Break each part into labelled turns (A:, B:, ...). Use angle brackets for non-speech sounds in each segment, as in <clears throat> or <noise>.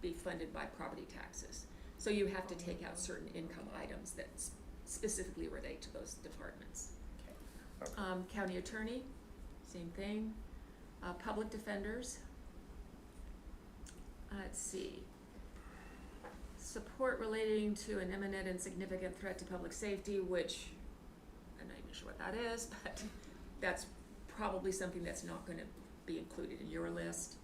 A: be funded by property taxes. So you have to take out certain income items that s- specifically relate to those departments.
B: Okay.
A: Um, county attorney, same thing. Uh, public defenders. Uh, Let's see. Support relating to an imminent and significant threat to public safety, which I'm not even sure what that is, <laughs> but that's probably something that's not gonna be included in your list.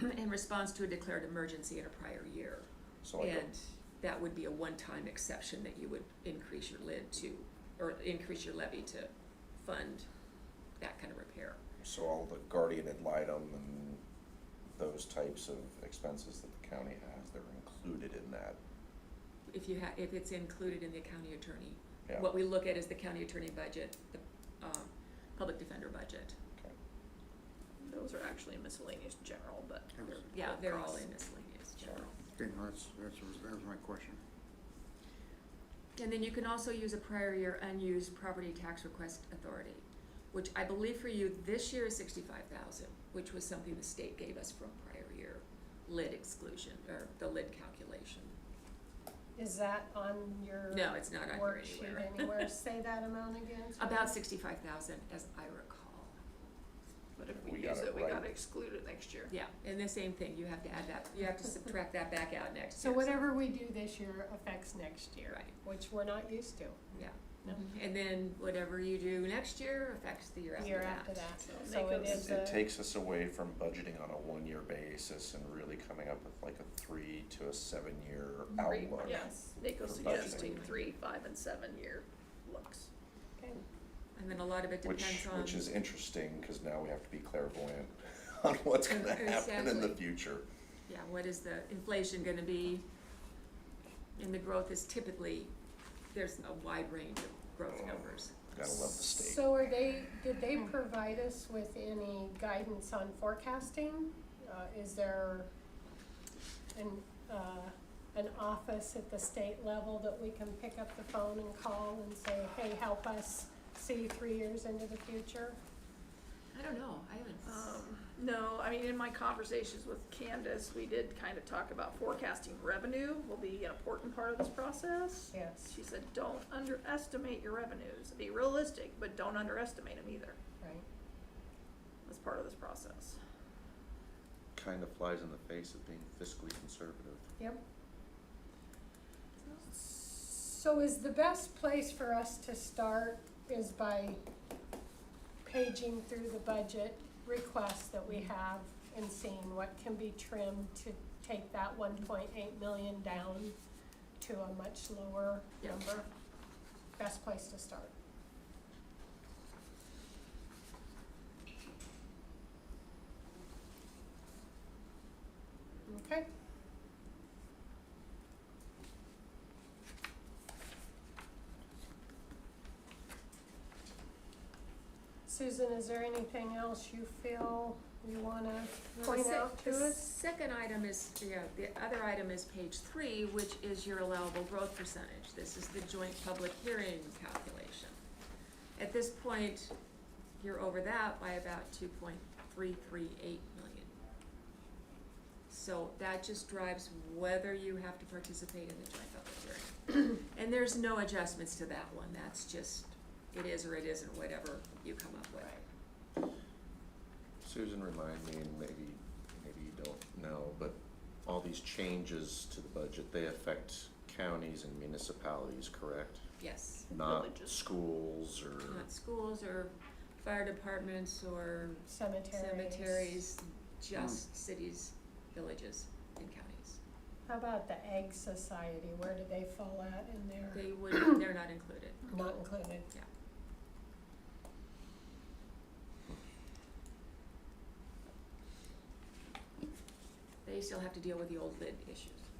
A: <clears throat> In response to a declared emergency in a prior year.
B: So like, a-
A: And that would be a one-time exception that you would increase your lid to, or increase your levy to fund that kind of repair.
B: so all the guardian ad litem and those types of expenses that the county has, they're included in that,
A: If you ha, if it's included in the county attorney,
B: yeah,
A: what we look at is the county attorney budget, the, um, public defender budget.
B: okay.
C: Those are actually miscellaneous general, but
D: Yes.
C: they're-
A: Yeah,
C: they're
A: they're all
C: costs.
A: in miscellaneous general.
D: Okay, no, that's, that's, that was my question.
A: And then you can also use a prior year unused property tax request authority, which I believe for you this year is sixty-five thousand, which was something the state gave us from prior year lid exclusion, or the lid calculation.
E: Is that on your
A: No, it's not on here
E: worksheet
A: anywhere.
C: <laughs>
E: anywhere? Say that amount again. sorry.
A: About sixty-five thousand, as I recall.
C: But if we
B: We got
C: use
B: it
C: it, we
B: right.
C: gotta exclude it next year.
A: Yeah, and the same thing, you have to add that, you have to subtract that back out next
E: So
A: year.
E: whatever we do this year affects next year.
A: Right.
E: Which we're not used to,
A: Yeah.
E: No.
A: And then whatever you do next year affects the year after that.
E: year after that,
C: So
E: so
C: make
E: it
C: it-
E: is
A: uh,
B: It
E: a,
B: takes us away from budgeting on a one-year basis and really coming up with like a three to a seven-year
C: Three,
B: outlook.
C: yes, Nico's
B: For budgeting.
C: suggesting three, five, and seven year looks.
E: okay,
A: And then a lot of it
B: Which,
A: depends on.
B: which is interesting, cause now we have to be clairvoyant <laughs> on what's gonna happen in the
A: Exactly.
B: future.
A: Yeah, what is the inflation gonna be? And the growth is typically, there's a wide range of growth numbers.
B: Gotta love the state.
E: so are they, did they provide us with any guidance on forecasting? Uh, is there an, uh, an office at the state level that we can pick up the phone and call and say, hey, help us see three years into the future?
A: I don't know, I haven't.
C: Um, no, I mean, in my conversations with Candace, we did kind of talk about forecasting revenue will be an important part of this process.
E: Yes,
C: She said, don't underestimate your revenues. Be realistic, but don't underestimate them either.
E: right.
C: That's part of this process.
B: Kinda flies in the face of being fiscally conservative.
E: Yep. So is the best place for us to start is by paging through the budget requests that we have and seeing what can be trimmed to take that one point eight million down to a much lower
A: Yeah.
E: number? Best place to start. Okay? Susan, is there anything else you feel you wanna
A: Well, the
E: point
A: sec-
E: out to
A: the
E: us?
A: second item is, yeah, the other item is page three, which is your allowable growth percentage. This is the joint public hearing calculation. At this point, you're over that by about two point three three eight million. So that just drives whether you have to participate in the joint public hearing. And there's no adjustments to that one, that's just, it is or it isn't, whatever you come up with.
B: Susan, remind me, and maybe, maybe you don't know, but all these changes to the budget, they affect counties and municipalities, correct?
A: Yes.
B: Not
C: Villages.
B: schools or,
A: not schools or fire departments or
E: Cemeteries.
A: cemeteries, just cities, villages, and counties.
E: How about the Egg Society? Where do they fall at in there?
A: They would, they're not included.
E: Not included.
A: Yeah. They still have to deal with the old lid issues.
E: Mm-hmm.